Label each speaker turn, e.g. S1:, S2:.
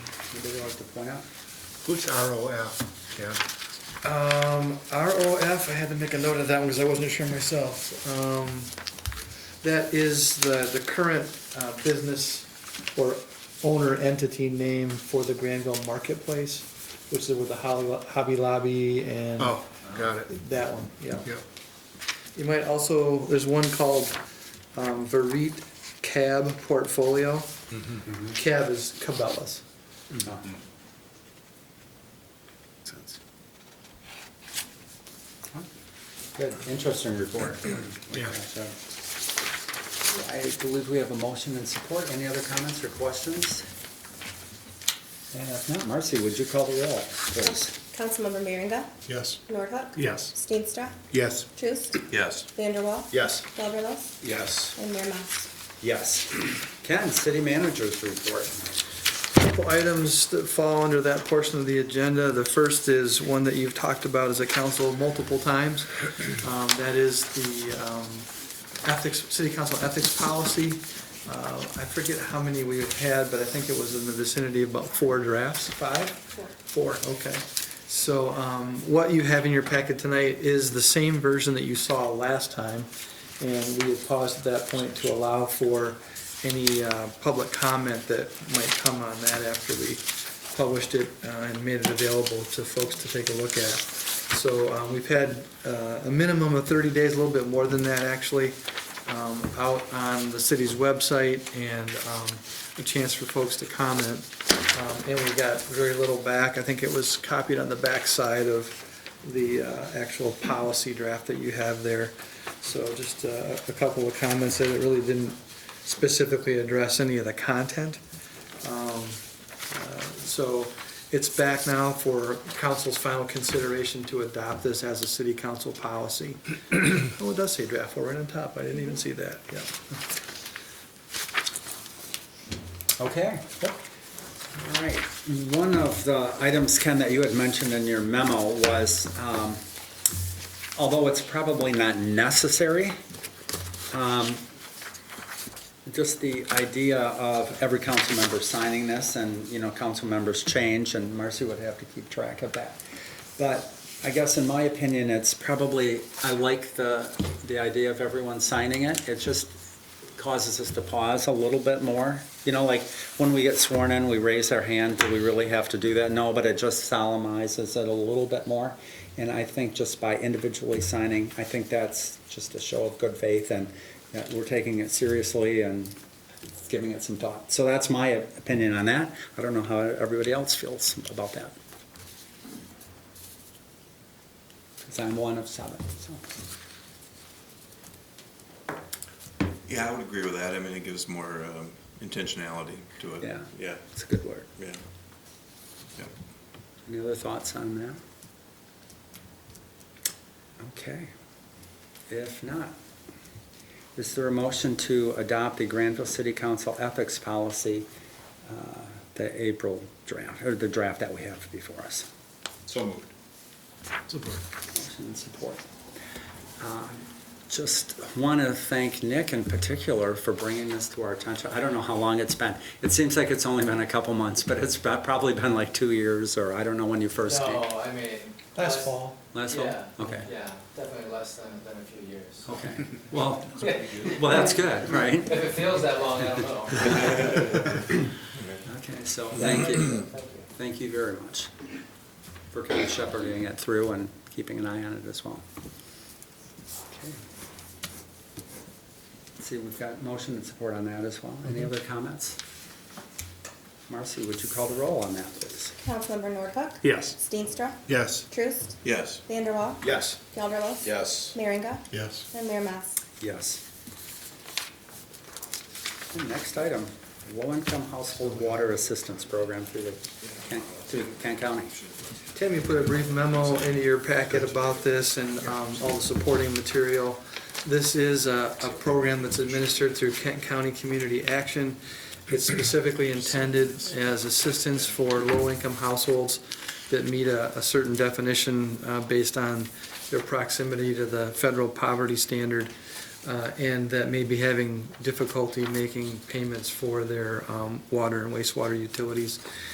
S1: anybody like to point out?
S2: Who's ROF, Ken?
S3: Um, ROF, I had to make a note of that one because I wasn't sure myself. Um, that is the, the current, uh, business or owner entity name for the Granville Marketplace, which is with the Holly- Hobby Lobby and
S2: Oh, got it,
S3: that one, yeah.
S2: yep.
S3: You might also, there's one called, um, Verit Cab Portfolio. Cab is Cabela's.
S1: No. Good, interesting report.
S2: Yeah.
S1: So, I believe we have a motion and support. Any other comments or questions? And if not, Marcy, would you call the roll, please?
S4: Councilmember Miranda.
S2: Yes.
S4: Nordhook.
S2: Yes.
S4: Steenstra.
S2: Yes.
S4: Truce.
S5: Yes.
S4: Vanderwall.
S2: Yes.
S4: Gelderlos.
S2: Yes.
S4: And Mayor Mas.
S1: Yes. Ken, city manager's report.
S3: couple items that fall under that portion of the agenda. The first is one that you've talked about as a council multiple times. Um, That is the um, ethics, city council ethics policy. Uh, I forget how many we have had, but I think it was in the vicinity of about four drafts, five? Four. Four, okay. So um, what you have in your packet tonight is the same version that you saw last time. And we had paused at that point to allow for any uh, public comment that might come on that after we published it uh, and made it available to folks to take a look at. So uh, we've had uh, a minimum of 30 days, a little bit more than that actually, um, out on the city's website and um, a chance for folks to comment. Um, And we got very little back. I think it was copied on the backside of the uh, actual policy draft that you have there. So just uh, a couple of comments that it really didn't specifically address any of the content. Um, uh, So it's back now for council's final consideration to adopt this as a city council policy. Oh, it does say draft, four right on top, I didn't even see that, yeah.
S1: Okay. All right. One of the items, Ken, that you had mentioned in your memo was, um, although it's probably not necessary, um, just the idea of every council member signing this and, you know, council members change and Marcy would have to keep track of that. But I guess in my opinion, it's probably, I like the, the idea of everyone signing it. It just causes us to pause a little bit more. You know, like when we get sworn in, we raise our hand. Do we really have to do that? No, but it just solemnizes it a little bit more. And I think just by individually signing, I think that's just a show of good faith and that we're taking it seriously and giving it some thought. So that's my opinion on that. I don't know how everybody else feels about that. Because I'm one of seven, so.
S5: Yeah, I would agree with that. I mean, it gives more um, intentionality to it.
S1: Yeah.
S5: Yeah,
S1: It's a good word.
S5: yeah. Yeah.
S1: Any other thoughts on that? Okay. If not, is there a motion to adopt the Granville City Council ethics policy, uh, the April draft, or the draft that we have before us?
S5: So moved.
S1: Motion and support. Uh, Just want to thank Nick in particular for bringing this to our attention. I don't know how long it's been. It seems like it's only been a couple months, but it's prob- probably been like two years, or I don't know when you first came.
S6: No, I mean.
S3: Last
S6: less-
S3: fall.
S1: Last fall?
S6: Yeah,
S1: Okay. Oh.
S6: Yeah, definitely less than, than a few years.
S1: Okay, well,
S6: If
S1: well, that's good, right?
S6: it feels that long, I don't know.
S1: Okay, so thank you,
S6: Thank you.
S1: thank you very much for kind of shepherding it through and keeping an eye on it as well. Okay. See, we've got motion and support on that as well. Any other comments? Marcy, would you call the roll on that, please?
S4: Councilmember Nordhook.
S2: Yes.
S4: Steenstra.
S2: Yes.
S4: Truce.
S5: Yes.
S4: Vanderwall.
S2: Yes.
S4: Gelderlos.
S5: Yes.
S4: Merringa.
S2: Yes.
S4: And Mayor Mas.
S1: Yes. And Next item, low-income household water assistance program through the, Kent- through Kent County.
S3: Tim, you put a brief memo into your packet about this and um, all the supporting material. This is a, a program that's administered through Kent County Community Action. It's specifically intended as assistance for low-income households that meet a, a certain definition uh, based on their proximity to the federal poverty standard uh, and that may be having difficulty making payments for their um, water and wastewater utilities.